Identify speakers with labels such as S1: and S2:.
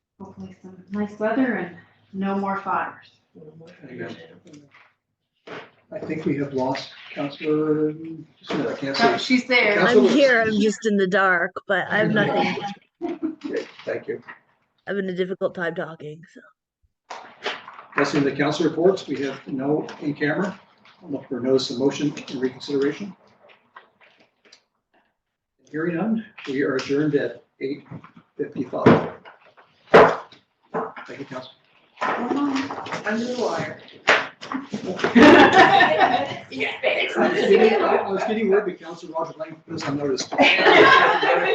S1: hopefully some nice weather and no more fires.
S2: I think we have lost Counselor, just a minute, I can't
S1: Oh,
S2: see.
S1: she's there.
S2: Council-
S3: I'm here, I'm just in the dark, but I have nothing.
S2: Okay, Thank you.
S3: I'm having a difficult time talking, so.
S2: Passing the council reports, we have no in camera. I'm looking for notice of motion and reconsideration. Hearing none, we are adjourned at eight fifty-five. Thank you, council.
S1: Under the wire.
S2: I was getting- I was getting word that Council Roger Lang put us on notice.